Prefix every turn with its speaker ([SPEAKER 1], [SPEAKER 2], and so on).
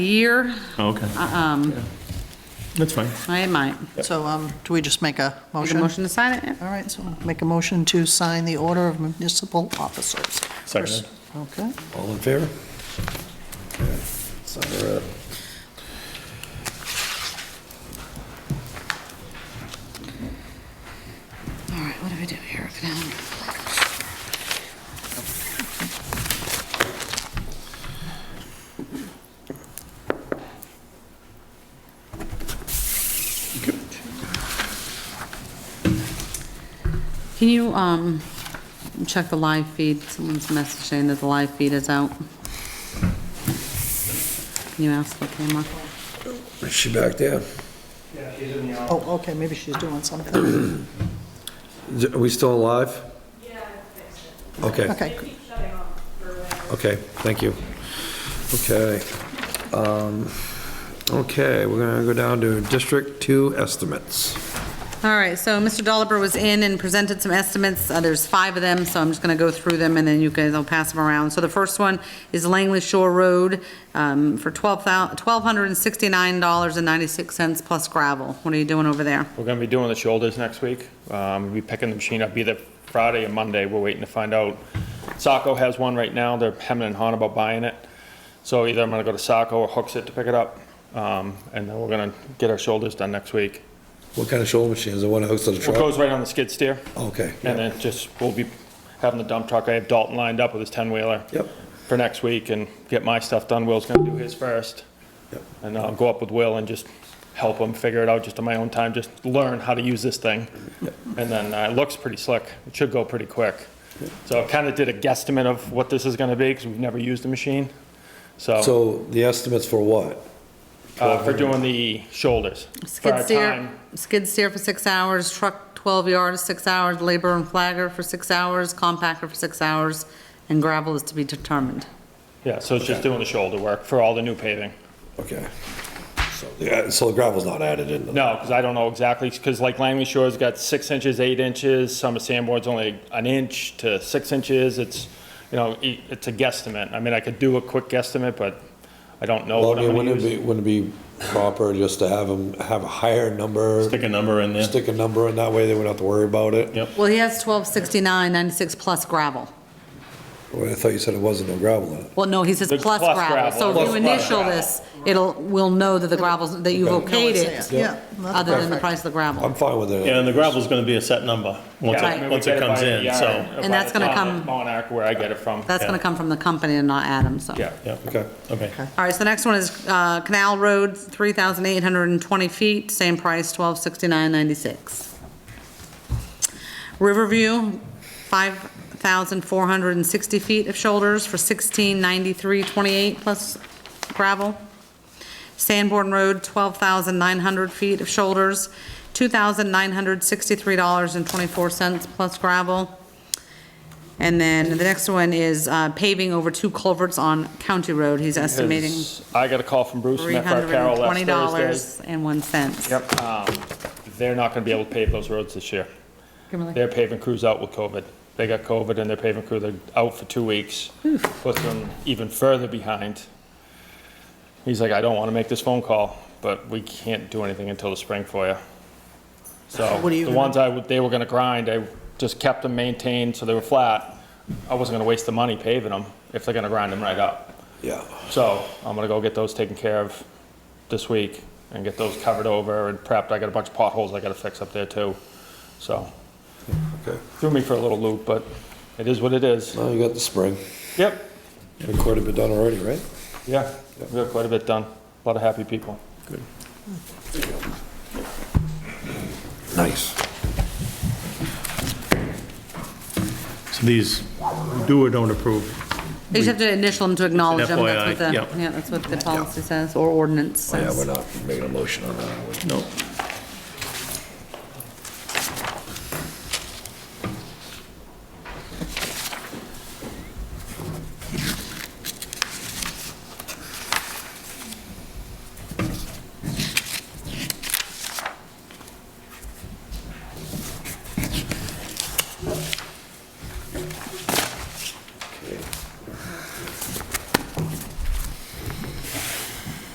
[SPEAKER 1] year,
[SPEAKER 2] Oh, Okay,
[SPEAKER 1] um,
[SPEAKER 2] that's fine.
[SPEAKER 1] I might.
[SPEAKER 3] So, um, do we just make a
[SPEAKER 1] Make a
[SPEAKER 3] motion?
[SPEAKER 1] motion to sign it?
[SPEAKER 3] All right, so make a motion to sign the order of municipal officers.
[SPEAKER 2] Second.
[SPEAKER 3] Okay.
[SPEAKER 4] All in favor? Okay, Sign her up.
[SPEAKER 1] All right, what do I do here? Go down. Can you, um, check the live feed? Someone's message saying that the live feed is out. Can you ask the camera?
[SPEAKER 4] Is she back there?
[SPEAKER 3] Oh, okay, maybe she's doing something.
[SPEAKER 4] Is- Are we still alive? Okay.
[SPEAKER 3] Okay,
[SPEAKER 4] Okay, thank you. Okay. um, Okay, we're gonna go down to District Two estimates.
[SPEAKER 1] All right, so Mr. Dolliver was in and presented some estimates. Uh, There's five of them, so I'm just going to go through them, and then you guys will pass them around. So the first one is Langley Shore Road um, for $1,269.96 plus gravel. What are you doing over there?
[SPEAKER 5] We're gonna be doing the shoulders next week. Um, We'll be picking the machine up either Friday or Monday. We're waiting to find out. Saco has one right now. They're hemming and hawing about buying it. So either I'm gonna go to Saco or Hooks It to pick it up. Um, And then we're gonna get our shoulders done next week.
[SPEAKER 4] What kind of shoulder machine? Is it one that hooks to the
[SPEAKER 5] It
[SPEAKER 4] truck?
[SPEAKER 5] goes right on the skid steer.
[SPEAKER 4] Okay.
[SPEAKER 5] And then just, we'll be having the dump truck. I have Dalton lined up with his 10-wheeler.
[SPEAKER 4] Yep.
[SPEAKER 5] For next week and get my stuff done. Will's gonna do his first.
[SPEAKER 4] Yep.
[SPEAKER 5] And I'll go up with Will and just help him figure it out just on my own time, just learn how to use this thing. And then uh, it looks pretty slick. It should go pretty quick. So I kind of did a guesstimate of what this is gonna be because we've never used the machine. So,
[SPEAKER 4] So the estimates for what?
[SPEAKER 5] uh, for doing the shoulders. For
[SPEAKER 1] Skid
[SPEAKER 5] our
[SPEAKER 1] steer,
[SPEAKER 5] time,
[SPEAKER 1] skid steer for six hours, truck 12 yards, six hours, labor and flagger for six hours, compactor for six hours, and gravel is to be determined.
[SPEAKER 5] Yeah, so it's just doing the shoulder work for all the new paving.
[SPEAKER 4] Okay. So, yeah, so the gravel's not added in? the-
[SPEAKER 5] No, because I don't know exactly, because like Langley Shore's got six inches, eight inches, Summer Sandboard's only an inch to six inches, it's, you know, e- it's a guesstimate. I mean, I could do a quick guesstimate, but I don't know
[SPEAKER 4] Well,
[SPEAKER 5] what
[SPEAKER 4] I
[SPEAKER 5] I'm
[SPEAKER 4] mean,
[SPEAKER 5] gonna
[SPEAKER 4] wouldn't it be,
[SPEAKER 5] use.
[SPEAKER 4] wouldn't it be proper just to have them, have a higher number?
[SPEAKER 2] Stick a number in there.
[SPEAKER 4] Stick a number in that way, they wouldn't have to worry about it?
[SPEAKER 2] Yep.
[SPEAKER 1] Well, he has 1269.96 plus gravel.
[SPEAKER 4] Well, I thought you said it wasn't no gravel in it.
[SPEAKER 1] Well, no, he says
[SPEAKER 5] The
[SPEAKER 1] plus
[SPEAKER 5] plus
[SPEAKER 1] gravel,
[SPEAKER 5] gravel.
[SPEAKER 1] so if you
[SPEAKER 5] Plus
[SPEAKER 1] initial
[SPEAKER 5] gravel.
[SPEAKER 1] this, it'll, we'll know that the gravel's, that you've okayed it,
[SPEAKER 3] yeah. that's
[SPEAKER 1] other than the
[SPEAKER 3] perfect.
[SPEAKER 1] price of the
[SPEAKER 4] I'm
[SPEAKER 1] gravel.
[SPEAKER 4] fine with it.
[SPEAKER 2] Yeah, and the gravel's gonna be a set number, once
[SPEAKER 5] Yeah, I mean,
[SPEAKER 2] it,
[SPEAKER 5] we
[SPEAKER 2] once it
[SPEAKER 5] get it
[SPEAKER 2] comes
[SPEAKER 5] by the
[SPEAKER 2] in,
[SPEAKER 5] yard,
[SPEAKER 2] so,
[SPEAKER 5] by
[SPEAKER 1] And that's
[SPEAKER 5] the
[SPEAKER 1] gonna
[SPEAKER 5] town
[SPEAKER 1] come-
[SPEAKER 5] at Monarch, where I get it from.
[SPEAKER 1] That's gonna come from the company and not Adam, so.
[SPEAKER 5] Yeah,
[SPEAKER 2] yeah,
[SPEAKER 4] Okay.
[SPEAKER 2] okay.
[SPEAKER 1] All right, so the next one is uh, Canal Road, 3,820 feet, same price, 1269.96. Riverview, 5,460 feet of shoulders for 1693.28 plus gravel. Sanborn Road, 12,900 feet of shoulders, $2,963.24 plus gravel. And then the next one is uh, paving over two culverts on County Road. He's estimating
[SPEAKER 5] Because I got a call from Bruce from FR Carroll last Thursday.
[SPEAKER 1] $320.01.
[SPEAKER 5] Yep, um, they're not gonna be able to pave those roads this year.
[SPEAKER 1] Kimberly?
[SPEAKER 5] Their paving crew's out with COVID. They got COVID and their paving crew, they're out for two weeks. Puts them even further behind. He's like, I don't want to make this phone call, but we can't do anything until the spring for you. So
[SPEAKER 3] What are you
[SPEAKER 5] the
[SPEAKER 3] gonna-
[SPEAKER 5] ones I, would- they were gonna grind, I just kept them maintained so they were flat. I wasn't gonna waste the money paving them if they're gonna grind them right up.
[SPEAKER 4] Yeah.
[SPEAKER 5] So I'm gonna go get those taken care of this week and get those covered over and prepped. I got a bunch of potholes I gotta fix up there too, so.
[SPEAKER 4] Okay.
[SPEAKER 5] Threw me for a little loop, but it is what it is.
[SPEAKER 4] Now you got the spring.
[SPEAKER 5] Yep,
[SPEAKER 4] The court had been done already, right?
[SPEAKER 5] yeah, we got quite a bit done. A lot of happy people.
[SPEAKER 4] Nice.
[SPEAKER 2] So these, do or don't approve,
[SPEAKER 1] You just have to initial them to acknowledge them. That's what
[SPEAKER 2] FYI,
[SPEAKER 1] the,
[SPEAKER 2] yep.
[SPEAKER 1] yeah, that's what the policy says, or ordinance
[SPEAKER 4] Oh, Yeah, we're
[SPEAKER 1] says.
[SPEAKER 4] not making a motion on that.
[SPEAKER 2] no,